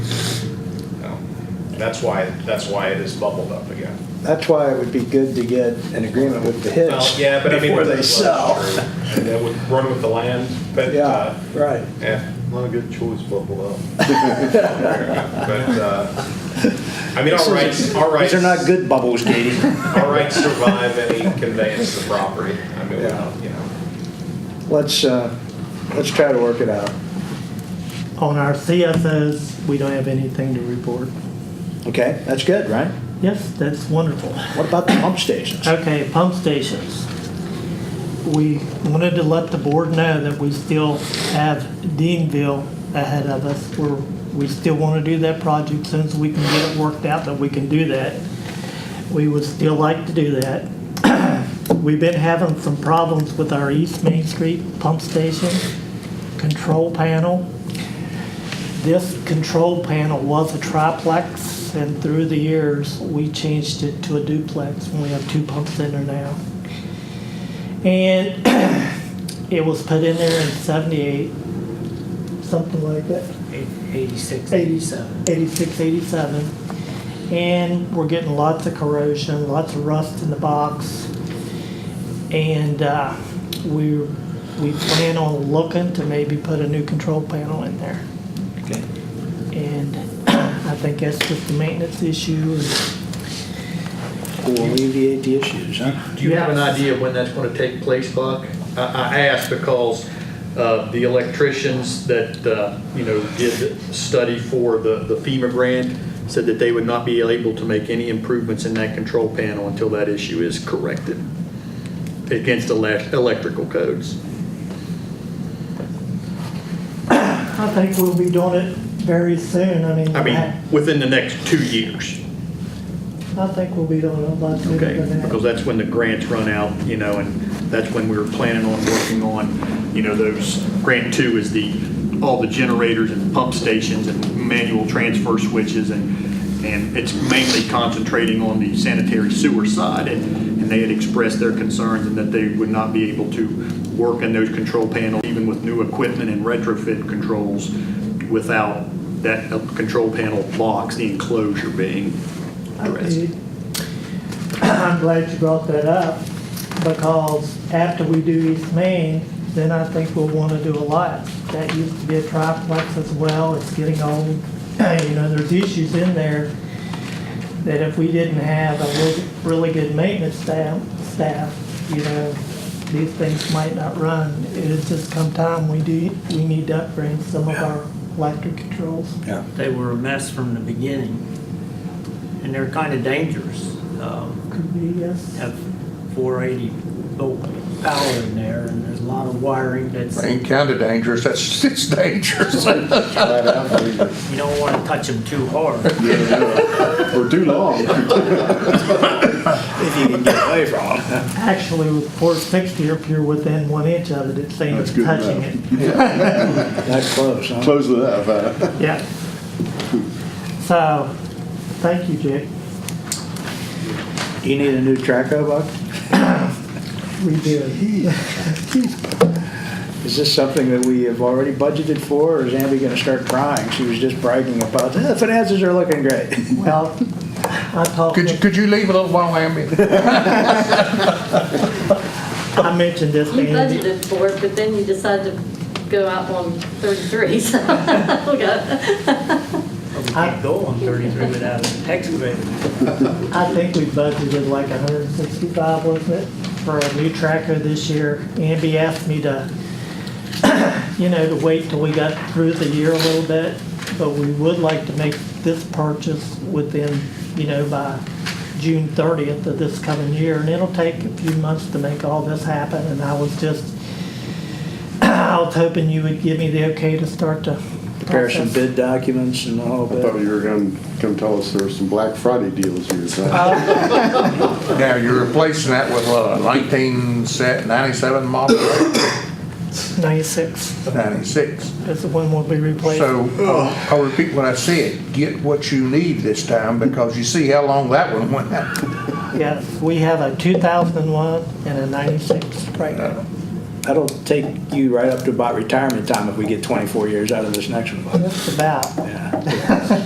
That's why, that's why it is bubbled up again. That's why it would be good to get an agreement with the Well, hitch. yeah, but I mean. Before well, they that's sell. true. And that would run with the land, but, uh, Yeah, right. yeah, not a good choice, bubble up. But, uh, I mean, all rights, all rights. These are not good bubbles, Katie. All rights survive any conveyance of property. I mean, we don't, you know. Let's, uh, let's try to work it out. On our CFOs, we don't have anything to report. Okay, that's good, right? Yes, that's wonderful. What about the pump stations? Uh, Okay, pump stations. We wanted to let the board know that we still have Deanville ahead of us. We're, we still want to do that project since we can get it worked out that we can do that. We would still like to do that. We've been having some problems with our East Main Street pump station control panel. This control panel was a triplex, and through the years, we changed it to a duplex, and we have two pumps in there now. And it was put in there in seventy-eight, something like that. 86. 87. 86, 87. And we're getting lots of corrosion, lots of rust in the box. And uh, we, we plan on looking to maybe put a new control panel in there. Okay. And I think that's just a maintenance issue. Will alleviate the issues, huh? Do you have an Yeah. idea when that's going to take place, Buck? I, I ask because uh, the electricians that, uh, you know, did the study for the the FEMA grant said that they would not be able to make any improvements in that control panel until that issue is corrected against elec- electrical codes. I think we'll be doing it very soon. I mean, I mean, I within the next two years, I think we'll be doing it a lot sooner okay? than Because that. that's when the grants run out, you know, and that's when we were planning on working on, you know, those, grant two is the, all the generators and pump stations and manual transfer switches and, and it's mainly concentrating on the sanitary sewer side. And, and they had expressed their concerns and that they would not be able to work in those control panels, even with new equipment and retrofit controls, without that uh, control panel box, the enclosure being addressed. Okay. I'm glad you brought that up because after we do East Main, then I think we'll want to do a lot. That used to be a triplex as well. It's getting old. You know, there's issues in there that if we didn't have a really- really good maintenance staff, staff, you know, these things might not run. It's just come time, we do, we need to upgrade some of our electric controls. Yeah. They were a mess from the beginning, and they're kind of dangerous. Um, Could be, yes. Have 480 volt power in there, and there's a lot of wiring that's, Ain't kinda dangerous, that's, it's dangerous. you don't want to touch them too hard. Or too long. If you can get away from them. Actually, with 460, if you're within one inch of it, it's saying it's That's good touching it. enough. That close, huh? Close it up. uh, Yeah. So, thank you, Jake. Do you need a new traco buck? We did. Is this something that we have already budgeted for, or is Abby gonna start crying? She was just bragging about, "Oh, the finances are looking great. Well, I talked, Could you, could you leave a little while, Amy? I mentioned this to You Andy. budgeted for it, but then you decided to go out on 33, so we got, We can't go on 33 without an excavator. I think we budgeted like 165, wasn't it, for a new tracker this year. Andy asked me to, you know, to wait till we got through the year a little bit, but we would like to make this purchase within, you know, by June 30th of this coming year, and it'll take a few months to make all this happen, and I was just, I was hoping you would give me the okay to start to Prepare some process. bid documents and all I thought that. you were going to come tell us there were some Black Friday deals you were trying. Now, you're replacing that with a nineteen set, ninety-seven model, 96 ninety-six. is the one we'll be replacing. So, I'll- I'll repeat what I said, get what you need this time, because you see how long that one went. Yes, we have a 2001 and a 96 right now. That'll take you right up to about retirement time if we get 24 years out of this next one. Just about. Yeah.